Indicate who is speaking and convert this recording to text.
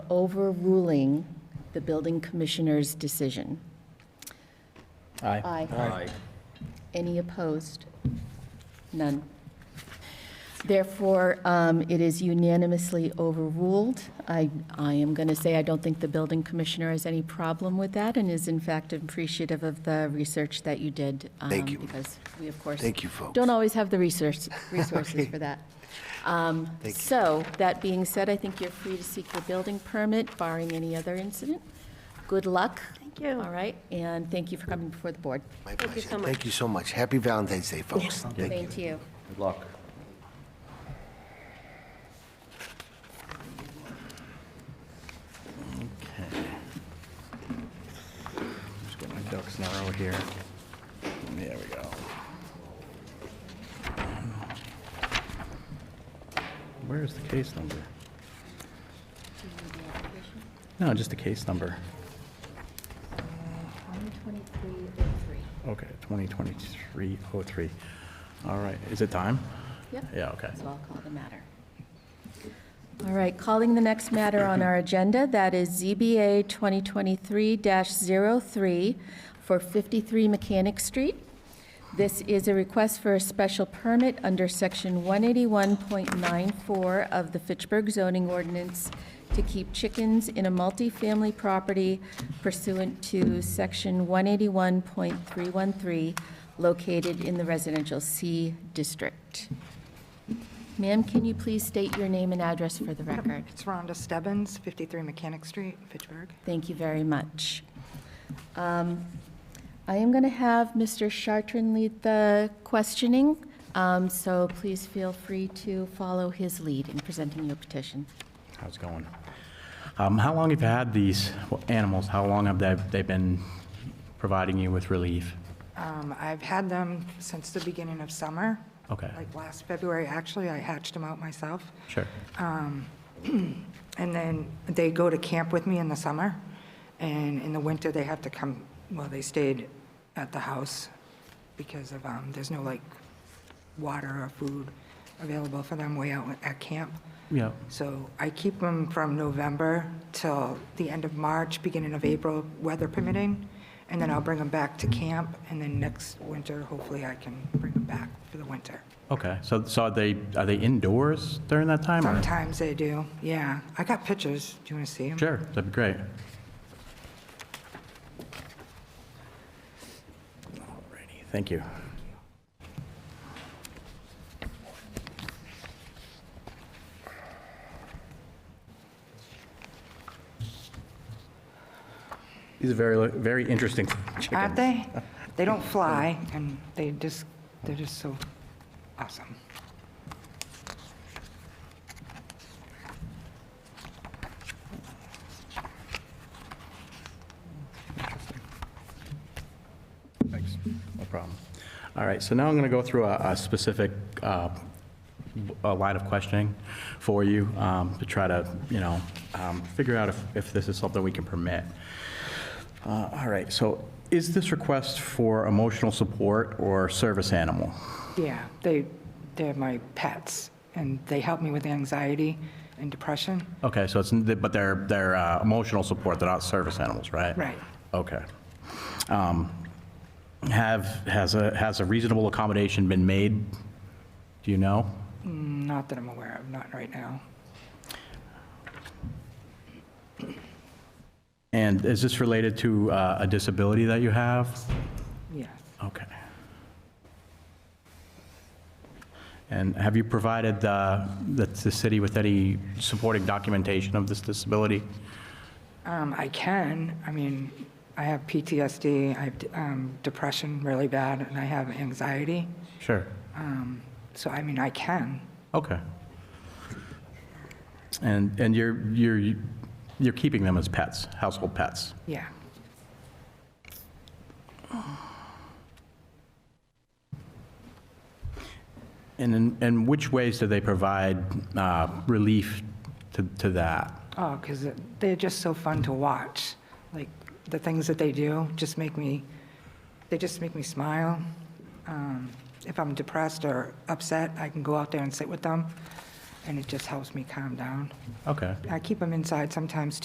Speaker 1: overruling the building commissioner's decision?
Speaker 2: Aye.
Speaker 1: Aye. Any opposed? None. Therefore, um, it is unanimously overruled. I, I am going to say I don't think the building commissioner has any problem with that and is in fact appreciative of the research that you did.
Speaker 3: Thank
Speaker 1: um,
Speaker 3: you.
Speaker 1: Because we, of course.
Speaker 3: Thank you, folks.
Speaker 1: Don't always have the resource, resources for that. Um,
Speaker 3: Thank you.
Speaker 1: So, that being said, I think you're free to seek your building permit barring any other incident. Good luck. Thank you. All right, and thank you for coming before the board.
Speaker 3: My pleasure. Thank you so much. Happy Valentine's Day, folks. Thank you.
Speaker 1: Thank you.
Speaker 2: Good luck. Okay. Just get my ducks in a row here. There we go. Where is the case number? No, just the case number.
Speaker 1: 12303.
Speaker 2: Okay, 2023-03. All right, is it time?
Speaker 1: Yep.
Speaker 2: Yeah, okay.
Speaker 1: So I'll call the matter. All right, calling the next matter on our agenda, that is ZBA 2023-03 for 53 Mechanic Street. This is a request for a special permit under Section 181.94 of the Fitchburg zoning ordinance to keep chickens in a multifamily property pursuant to Section 181.313 located in the residential C district. Ma'am, can you please state your name and address for the record?
Speaker 4: It's Rhonda Stebbins, 53 Mechanic Street, Fitchburg.
Speaker 1: Thank you very much. Um, I am going to have Mr. Chartran lead the questioning, um, so please feel free to follow his lead in presenting your petition.
Speaker 2: How's it going? Um, How long have you had these animals? How long have they, they been providing you with relief?
Speaker 4: Um, I've had them since the beginning of summer.
Speaker 2: Okay.
Speaker 4: Like last February, actually, I hatched them out myself.
Speaker 2: Sure.
Speaker 4: And then they go to camp with me in the summer, and in the winter, they have to come, well, they stayed at the house because of, um, there's no like water or food available for them way out at camp.
Speaker 2: Yeah,
Speaker 4: So I keep them from November till the end of March, beginning of April, weather permitting, and then I'll bring them back to camp, and then next winter, hopefully I can bring them back for the winter.
Speaker 2: okay. So, so are they, are they indoors during that time? or-
Speaker 4: Sometimes they do, yeah. I got pictures, do you want to see them?
Speaker 2: Sure, that'd be great. Alrighty, Thank you. These are very, very interesting chickens.
Speaker 4: Aren't they? They don't fly, and they just, they're just so awesome.
Speaker 2: Thanks, no problem. All right, so now I'm going to go through a a specific uh, w- a line of questioning for you um, to try to, you know, um, figure out if- if this is something we can permit. Uh, All right, so is this request for emotional support or service animal?
Speaker 4: Yeah, they, they're my pets, and they help me with anxiety and depression.
Speaker 2: Okay, so it's, but they're, they're uh, emotional support, they're not service animals, right?
Speaker 4: Right.
Speaker 2: Okay. Um, Have, has a, has a reasonable accommodation been made? Do you know?
Speaker 4: Not that I'm aware of, not right now.
Speaker 2: And is this related to uh, a disability that you have?
Speaker 4: Yes,
Speaker 2: Okay. And have you provided uh, the the city with any supporting documentation of this disability?
Speaker 4: Um, I can. I mean, I have PTSD, I have um, depression really bad, and I have anxiety.
Speaker 2: Sure.
Speaker 4: Um, So, I mean, I can.
Speaker 2: Okay. And, and you're, you're, you're keeping them as pets, household pets?
Speaker 4: Yeah,
Speaker 2: And in, and which ways do they provide uh, relief to, to that?
Speaker 4: oh, because they're just so fun to watch. Like, the things that they do just make me, they just make me smile. Um, If I'm depressed or upset, I can go out there and sit with them, and it just helps me calm down.
Speaker 2: Okay.
Speaker 4: I keep them inside sometimes